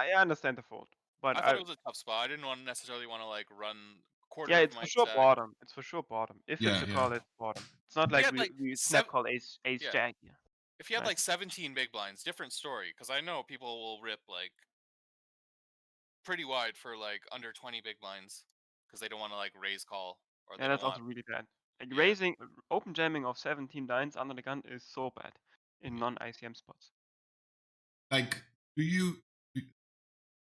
I understand the fold, but I thought I- it was a tough spot. I didn't want to necessarily want to like run quarter. yeah, of it's my for sure stack. bottom. It's for sure bottom. If Yeah, it's a yeah. call, it's bottom. It's not like had, we, like, we seven- snap call ace ace Yeah. jack. Yeah. If you had Right. like 17 big blinds, different story. Because I know people will rip like pretty wide for like under 20 big blinds because they don't want to like raise call or they Yeah, that's don't also want. really bad. Like Yeah. raising open jamming of 17 nines under the gun is so bad in non ICM spots. Like, do you do-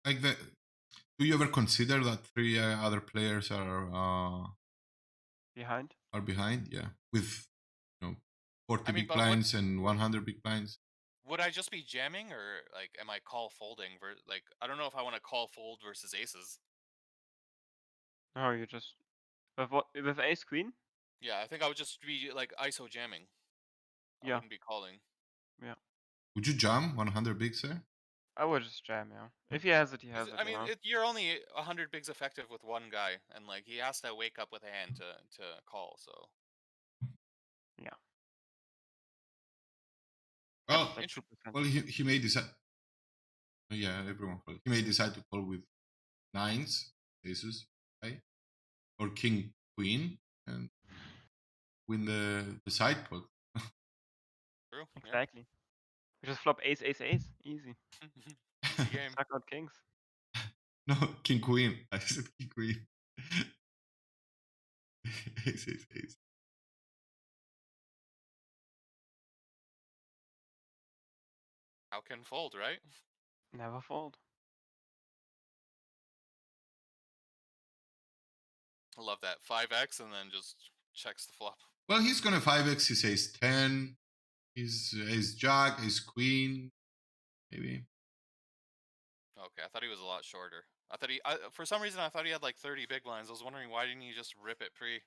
like the? Do you ever consider that three uh, other players are uh, Behind. are behind? Yeah, with you know, forty I mean, big but what- blinds and one hundred big blinds. Would I just be jamming or like am I call folding? Ver- like I don't know if I want to call fold versus aces. No, oh, you just with what with ace queen. Yeah, I think I would just be like ISO jamming. I Yeah. wouldn't be calling. Would you jam one hundred bigs there? I would just jam. Yeah. If he has it, he has Is- it. I you mean, know? it, you're only hundred bigs effective with one guy, and like he has to wake up with a hand to to call. So Well, like Oh, inter- 2%. well, he, he may decide. Yeah, everyone. call. He may decide to call with nines, aces, right? Or king, queen, and win the the side pot. true. yeah. Mm. Exactly. We just flop ace ace ace. Easy. Easy game. Suck out kings. No, King Queen. I said King Queen. ace, ace, ace. How can fold, right? Never fold. I love that five X, and then just checks the flop. Well, he's gonna five x. He says ten. He's ace jack, ace queen, maybe. Okay, I thought he was a lot shorter. I thought he, I, for some reason, I thought he had like thirty big blinds. I was wondering why didn't he just rip it pre?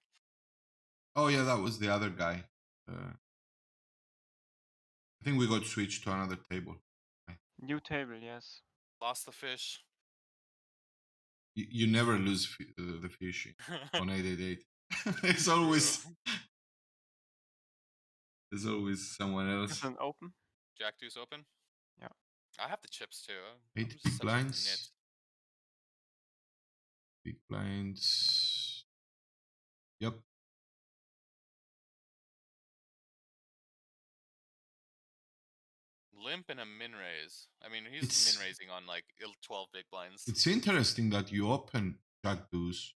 Oh yeah, that was the other guy. Uh, I think we got switched to another table. New table. Yes. Lost the fish. You, you never lose f- uh, the fish on eight eight eight. There's always there's always someone It's else. an open. Jack deuce open. Yeah. I have the chips too. I'm- I'm Eight just big such a blinds. nit. Big blinds. Yep. Limp and a min raise. I mean, he's It's- min raising on like il- twelve big blinds. It's interesting that you open Jack Deuce,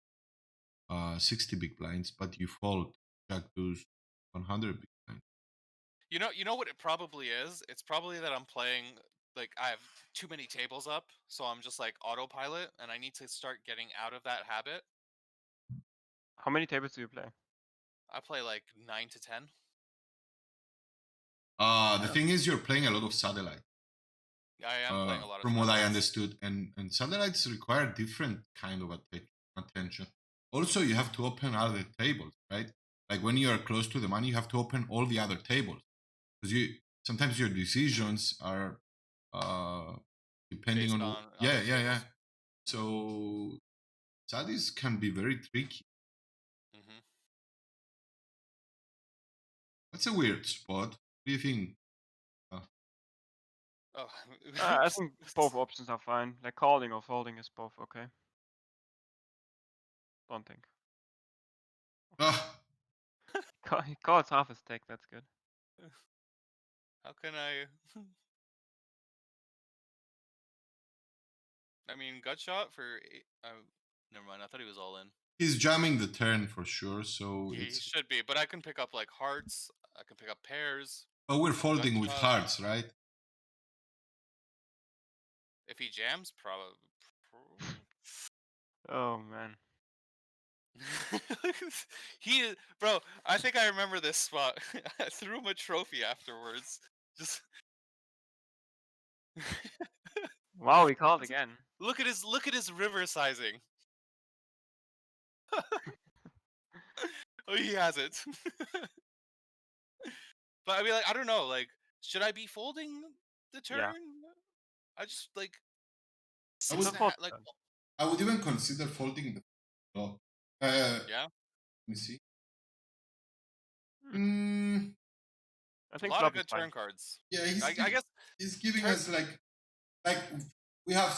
uh, 60 big blinds, but you fold Jack Deuce 100 big blinds. You know, you know what it probably is. It's probably that I'm playing like I have too many tables up, so I'm just like autopilot, and I need to start getting out of that habit. How many tables do you play? I play like nine to ten. Uh, the Yeah. thing is, you're playing a lot of satellite, I am playing uh, a lot of. from what I satellites. understood, and and satellites require different kind of atten- attention. Also, you have to open other tables, right? Like when you are close to the money, you have to open all the other tables because you sometimes your decisions are uh, depending Based on, wh- on yeah, other yeah, yeah. tables. So studies can be very tricky. Mhm. That's a weird spot. What do you think? Oh, Uh, I think both options are fine. Like calling or folding is both okay. Don't think. Ah, Ca- He calls half his stack. That's good. How can I? I mean, gut shot for. eight- Uh, never mind. I thought he was all in. he's jamming the turn for sure. So He it's should be, but I can pick up like hearts. I can pick up pairs. oh, we're folding with uh, hearts, right? If he jams, probably. Oh man. he is, bro. I think I remember this spot. I threw him a trophy afterwards. Just Wow, he called again. look at his look at his river sizing. oh, he has it. but I mean, like, I don't know. Like, should I be folding the turn? Yeah. I just like. I six would- and a ha- Fold like, turn. I would even consider folding the flop. Uh, Yeah. Let me see. Mm, I a think lot of flop is good fine. turn cards. yeah, he's, I, I giv- guess he's giving turn- us like, like we have